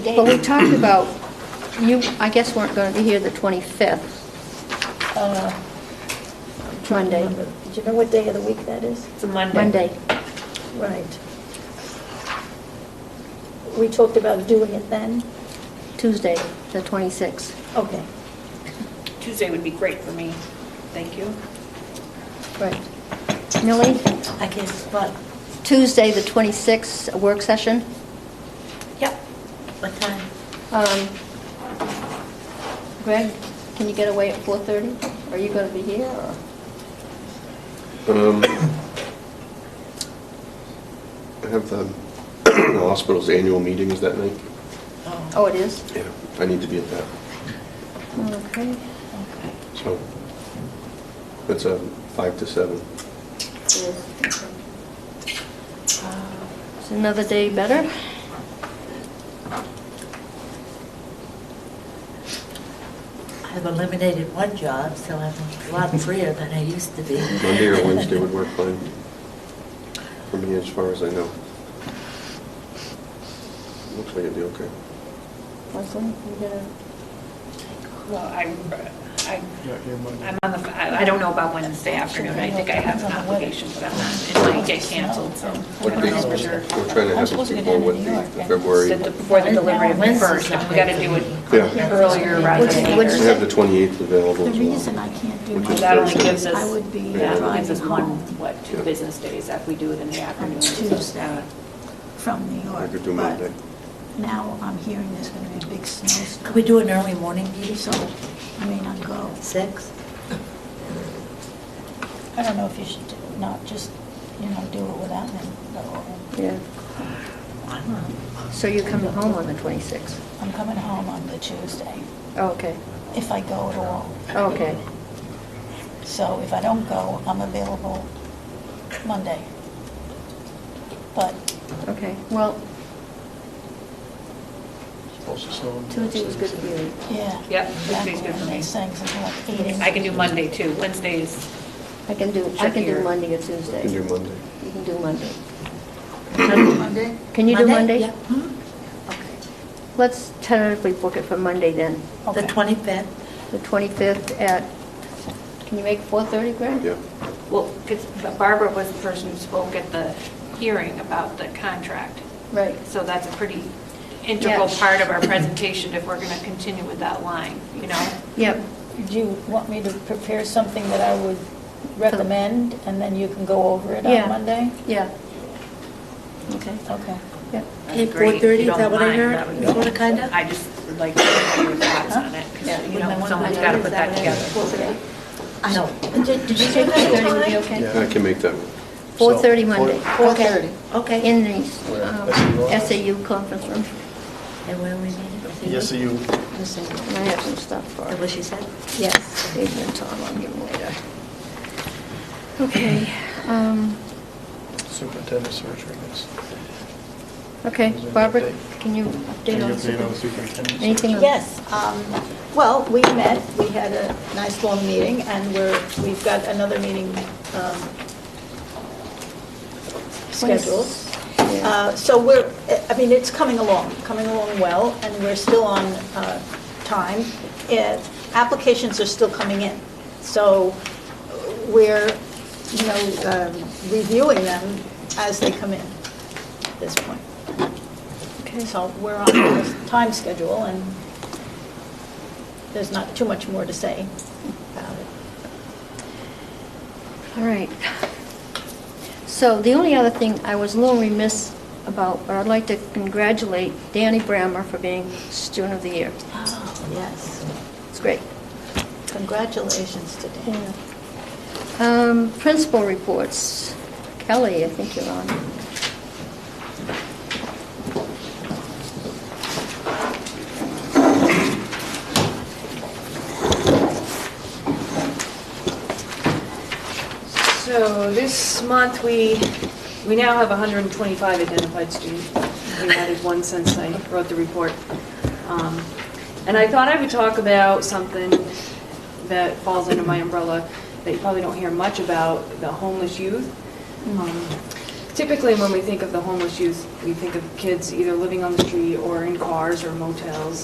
Well, we talked about, you, I guess weren't going to be here the 25th, Uh, Monday, remember. Did you know what day of the week that is? It's a Monday. Monday. Right. We talked about doing it then? Tuesday, the 26th. Okay, Tuesday would be great for me. Thank you. right. Millie, I guess, what, Tuesday, the 26th, a work session. Yep. what time? Um, Greg, can you get away at 4:30? Are you going to be here, or? Um, I have the hospital's annual meetings that night. Um, Oh, it is? Yeah. I need to be at that, Okay. Okay. so it's a five to seven. Uh, Is another day better? I've eliminated one job, so I'm a lot freer than I used to be. Monday or Wednesday would work fine for me as far as I know. Looks like it'd be okay. Leslie, you gonna, Well, I, I, Yeah, here, Monday. Um, I'm on the, I I don't know about Wednesday afternoon. I think I have an obligation, but I'm not, it might get canceled, so. I What don't know for dates- sure. We're trying to have it before what the the February, Said the- Before the delivery of the Wednesday's first, not we gotta good do for it me. Yeah. earlier rather than What'd you I later. have the 28th available The as well. reason I can't do Which my is That only Thursday. gives us, I would be that gives us driving one, home. what, two business days if we do it in the afternoon. Tuesday from New I York, could do but Monday. now I'm hearing there's going to be a big snowstorm. Could we do an early morning meeting, So so I may not go. six? I don't know if you should do- not just, you know, do it without me. though. yeah, I don't know. so you're coming home on the 26th? I'm coming home on the Tuesday, Oh, okay, Oh, if I go at all. okay. So if I don't go, I'm available Monday. But Okay, well, Supposed to snow on Tuesday was good for you. Yeah. Yep, Tuesday's good for me. These things are like eight. I can do Monday too. Wednesday is I can do, I can do Trickier. Monday or I Tuesday. can do Monday. You can do Monday. Monday? Can you do Monday? Yeah. Hmm? Let's tentatively book it for Monday then, Okay. The Okay. 25th? the 25th at, can you make 4:30, Greg? Yeah. Well, 'cause Barbara was the person who spoke at the hearing about the contract, Right. so that's a pretty integral Yeah. part of our presentation if we're going to continue with that line, you know? Yep, Do you want me to prepare something that I would recommend, and then you can go over it Yeah. on Monday? yeah, Okay. Okay. yep. Okay, That's great. 4:30, You don't is that what I mind, heard? that would be- Sorta, kinda? I just would like to hear your thoughts on it, 'cause, you know, someone's got to put that together. No. Did did you say would be that okay? Yeah. I can make that work. 4:30 So, Monday. time? Okay. Okay. In the um, SAU conference room. And where we meeting? Yes, so you, And I have some stuff for That what she said? Yes, Adrian and Tom, I'll give them later. Okay, um, superintendent search, I guess. okay, Is there an Barbara, update? can you update Any on update on super- superintendent? anything? on- Yes, um, well, we met, we had a nice long meeting, and we're, we've got another meeting um, scheduled. Yeah. Uh, So we're, I mean, it's coming along, coming along well, and we're still on uh, time. Uh, Applications are still coming in, so we're, you know, um, reviewing them as they come in at this point. Okay. So we're on the time schedule, and there's not too much more to say about it. All right. So the only other thing, I was a little remiss about, but I'd like to congratulate Danny Brammer for being Student of the Year. Oh, yes. It's great. Congratulations to Dan. Um, Principal reports. Kelly, I think you're on. So this month, we, we now have 125 identified students. We added one since I wrote the report. Um, And I thought I would talk about something that falls under my umbrella that you probably don't hear much about, the homeless youth. Um, typically when we think of the homeless youth, we think of kids either living on the street or in cars or motels